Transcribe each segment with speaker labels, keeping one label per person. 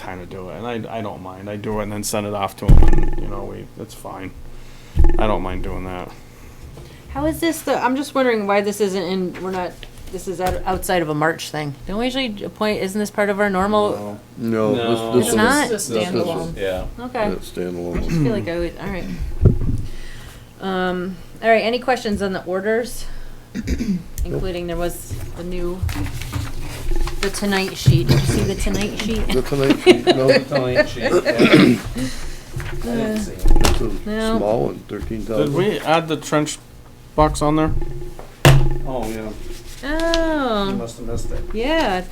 Speaker 1: time to do it, and I, I don't mind. I do it and then send it off to him, and, you know, we, that's fine. I don't mind doing that.
Speaker 2: How is this the, I'm just wondering why this isn't in, we're not, this is out- outside of a March thing. Don't we usually appoint, isn't this part of our normal?
Speaker 3: No,
Speaker 1: No.
Speaker 3: this,
Speaker 2: It's
Speaker 3: this
Speaker 2: not?
Speaker 3: is
Speaker 2: It's
Speaker 4: a standalone.
Speaker 1: Yeah.
Speaker 2: Okay.
Speaker 3: yeah, standalone.
Speaker 2: I feel like I would, all right. Um, all right, any questions on the orders? Including there was a new, the Tonight Sheet. Did you see the Tonight
Speaker 3: The
Speaker 2: Sheet?
Speaker 3: Tonight Sheet, no, it's
Speaker 2: No.
Speaker 3: a small one, thirteen
Speaker 1: Did
Speaker 3: thousand.
Speaker 1: we add the trench box on there?
Speaker 5: Oh, yeah, you
Speaker 2: Oh,
Speaker 5: must have missed it.
Speaker 2: yeah.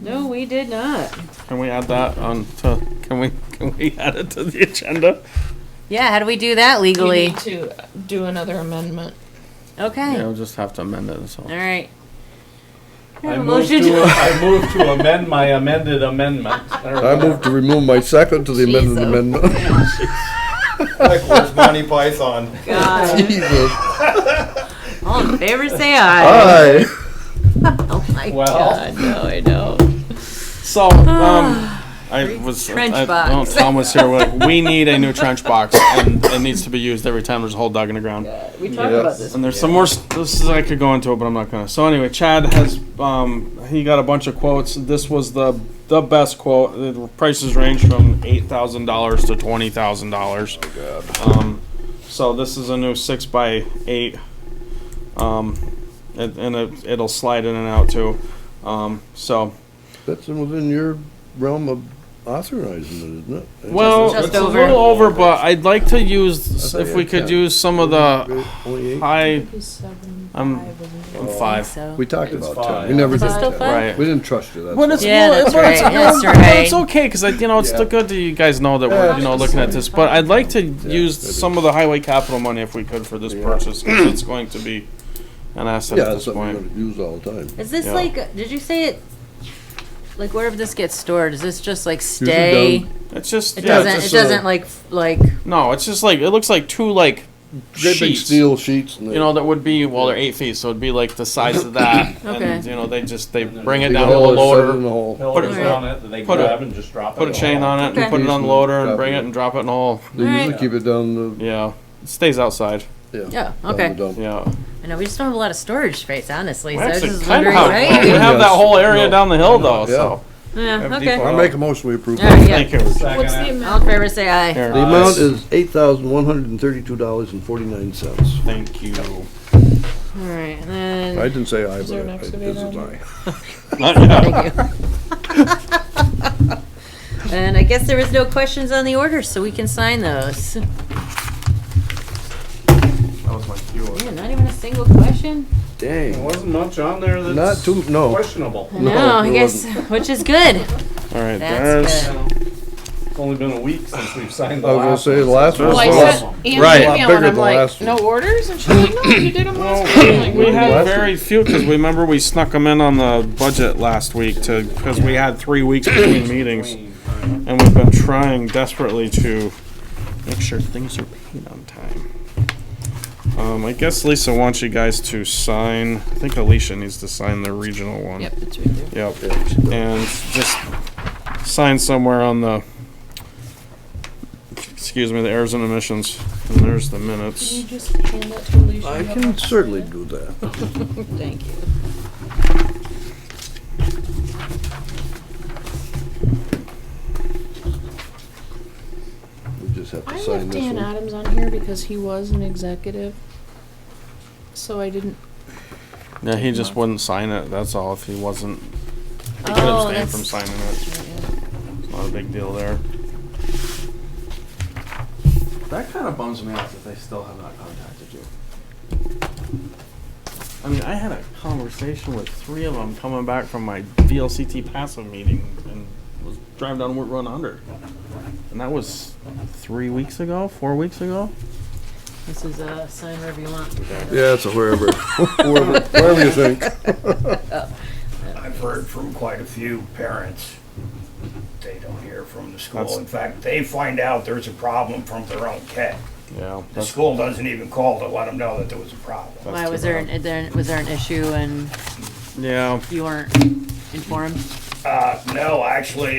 Speaker 2: No, we did not.
Speaker 1: Can we add that on to, can we, can we add it to the agenda?
Speaker 2: Yeah, how do we do that
Speaker 4: You
Speaker 2: legally?
Speaker 4: need to do another amendment.
Speaker 2: Okay,
Speaker 1: Yeah,
Speaker 2: all
Speaker 1: we'll just have to amend it, so.
Speaker 2: right. I
Speaker 5: I
Speaker 2: have a
Speaker 5: move
Speaker 2: motion.
Speaker 5: to, I move to amend my amended amendment.
Speaker 3: I move to remove my second to the amended
Speaker 4: Jesus.
Speaker 3: amendment.
Speaker 5: Like, where's Monty Python?
Speaker 2: God.
Speaker 3: Jesus,
Speaker 2: All in favor, say aye.
Speaker 3: aye.
Speaker 2: Oh my
Speaker 5: Well,
Speaker 4: I know, I know.
Speaker 1: So, um, I was,
Speaker 2: Trench
Speaker 1: I, oh,
Speaker 2: box.
Speaker 1: Tom was here, we're like, we need a new trench box, and it needs to be used every time there's a hole dug in the ground.
Speaker 2: We talked about
Speaker 3: Yes.
Speaker 2: this.
Speaker 1: And there's some more. s- This is I could go into it, but I'm not gonna. So anyway, Chad has um he got a bunch of quotes. This was the the best quote. The prices range from eight thousand dollars to twenty thousand dollars. Um, so this is a new six by eight. Um, and, and it, it'll slide in and out too. Um, so
Speaker 3: That's within your realm of authorizing it, isn't it? It's
Speaker 1: well,
Speaker 2: Just
Speaker 1: it's a
Speaker 2: over.
Speaker 1: little over, but I'd like to use
Speaker 3: I thought
Speaker 1: if
Speaker 3: you
Speaker 1: we
Speaker 3: had
Speaker 1: could
Speaker 3: 10.
Speaker 1: use some of the
Speaker 3: Only eight?
Speaker 1: high.
Speaker 4: Seven,
Speaker 3: Um,
Speaker 1: I'm-
Speaker 4: five, isn't it?
Speaker 1: I'm five.
Speaker 2: So.
Speaker 3: We talked
Speaker 5: It's
Speaker 3: about
Speaker 5: five.
Speaker 3: ten, we never
Speaker 2: Is
Speaker 3: did
Speaker 2: it still
Speaker 3: ten.
Speaker 2: five?
Speaker 1: Right.
Speaker 3: We didn't trust you, that's
Speaker 1: But it's
Speaker 3: why.
Speaker 2: Yeah,
Speaker 1: well,
Speaker 2: that's
Speaker 1: but it's,
Speaker 2: right, that's
Speaker 1: well, but it's
Speaker 2: right.
Speaker 1: okay because you know it's
Speaker 3: Yeah.
Speaker 1: still good that you guys know that we're you know looking at this. But I'd like to use
Speaker 3: maybe.
Speaker 1: some of the highway capital money if we could for this
Speaker 3: Yeah.
Speaker 1: purchase 'cause it's going to be an asset
Speaker 3: Yeah,
Speaker 1: at
Speaker 3: that's
Speaker 1: this
Speaker 3: something we
Speaker 1: point.
Speaker 3: gotta use all the time.
Speaker 2: Is this
Speaker 1: Yeah.
Speaker 2: like? Did you say it? Like wherever this gets stored, is this just like stay?
Speaker 3: down.
Speaker 1: It's just
Speaker 2: It
Speaker 1: yeah,
Speaker 2: doesn't.
Speaker 1: it's
Speaker 2: It
Speaker 1: just,
Speaker 2: doesn't like f- like.
Speaker 1: no. It's just like it looks like two like
Speaker 3: Great big
Speaker 1: sheets.
Speaker 3: steel sheets and they.
Speaker 1: You know that would be well they're eight feet, so it'd be like the size of that.
Speaker 2: Okay.
Speaker 1: And you know they just they bring it
Speaker 3: dig a uh,
Speaker 1: down to the
Speaker 3: hole, shove it
Speaker 1: loader.
Speaker 3: in the hole.
Speaker 5: Pillars
Speaker 2: Put a-
Speaker 5: on it, that they
Speaker 1: put a-
Speaker 5: grab and just drop it.
Speaker 1: Put a chain on it
Speaker 2: Okay.
Speaker 1: and put it on the loader and bring it and drop it in the hole.
Speaker 3: They usually keep it down the,
Speaker 1: Yeah, it stays outside.
Speaker 3: yeah.
Speaker 2: Yeah.
Speaker 3: down the
Speaker 2: Okay.
Speaker 3: dump.
Speaker 1: Yeah.
Speaker 2: I know we just don't have a lot of storage space, honestly.
Speaker 1: We
Speaker 2: So I was
Speaker 1: actually
Speaker 2: just
Speaker 1: kind of
Speaker 2: wondering,
Speaker 1: have, we
Speaker 2: right?
Speaker 1: have that
Speaker 3: Yes.
Speaker 1: whole area
Speaker 3: No.
Speaker 1: down the hill though,
Speaker 3: Yeah.
Speaker 1: so. have
Speaker 2: Yeah.
Speaker 1: deep-
Speaker 2: Okay.
Speaker 3: I make a motion, we approve.
Speaker 2: All right. Yeah.
Speaker 1: Thank you.
Speaker 4: What's the
Speaker 5: Second it.
Speaker 2: All in
Speaker 4: amendment?
Speaker 2: favor, say aye.
Speaker 1: Here.
Speaker 3: The amount is eight thousand one hundred and thirty-two dollars and forty-nine cents.
Speaker 1: Thank you.
Speaker 2: All right. And
Speaker 3: I
Speaker 2: then,
Speaker 3: didn't say I,
Speaker 4: there an
Speaker 3: but I-
Speaker 4: excavator
Speaker 3: this is
Speaker 4: on
Speaker 3: I.
Speaker 1: Not yet.
Speaker 2: thank you. and I guess there was no questions on the orders, so we can sign those.
Speaker 1: That was my cue.
Speaker 2: Yeah, not even a single question.
Speaker 5: There
Speaker 3: Dang.
Speaker 5: wasn't much on there
Speaker 3: Not
Speaker 5: that's
Speaker 3: too, no.
Speaker 5: questionable.
Speaker 2: No,
Speaker 3: No,
Speaker 2: I
Speaker 3: there
Speaker 2: guess, which is good.
Speaker 1: All right,
Speaker 2: That's
Speaker 1: there's,
Speaker 2: good.
Speaker 5: It's only been a week since we've signed the
Speaker 3: I was gonna
Speaker 5: last.
Speaker 3: say, the last one
Speaker 4: Well, I
Speaker 3: was,
Speaker 4: sent Angie
Speaker 1: Right.
Speaker 4: an
Speaker 3: Lot
Speaker 4: email
Speaker 3: bigger
Speaker 4: and I'm
Speaker 3: than
Speaker 4: like,
Speaker 3: last
Speaker 4: no
Speaker 3: one.
Speaker 4: orders? And she's like, no, you did them last week. I'm like,
Speaker 1: we had
Speaker 3: Last
Speaker 1: very few, cause we remember we snuck them in on the budget last week to, cause we had three weeks between meetings. And we've been trying desperately to make sure things are paid on time. Um, I guess Lisa wants you guys to sign, I think Alicia needs to sign the regional one.
Speaker 4: Yep, it's right there.
Speaker 1: Yep, and just sign somewhere on the, excuse me, the errors and omissions, and there's the
Speaker 4: Can you
Speaker 1: minutes.
Speaker 4: just hand that to Alicia?
Speaker 3: I can certainly do that.
Speaker 4: Thank you.
Speaker 3: We just have to
Speaker 4: I
Speaker 3: sign
Speaker 4: left
Speaker 3: this
Speaker 4: Dan
Speaker 3: one.
Speaker 4: Adams on here because he was an executive. So I didn't,
Speaker 1: Yeah, he just wouldn't sign it, that's all, if he wasn't, he could
Speaker 2: Oh,
Speaker 1: abstain from
Speaker 2: that's-
Speaker 1: signing it, it's not a big deal there. That kinda bums me out that they still have not contacted you. I mean, I had a conversation with three of them coming back from my VLCT passive meeting and was driving down Route 100. And that was three weeks ago, four weeks ago.
Speaker 2: This is a sign wherever you want.
Speaker 3: Yeah, it's a wherever, wherever, wherever you think.
Speaker 6: I've heard from quite a few parents. They don't hear from the
Speaker 1: That's-
Speaker 6: school. In fact, they find out there's a problem from their own kid.
Speaker 1: Yeah.
Speaker 6: The school doesn't even call to let them know that there was a problem.
Speaker 2: Why was there, an, there was there an issue and
Speaker 1: Yeah.
Speaker 2: you weren't informed?
Speaker 6: Uh, no, actually,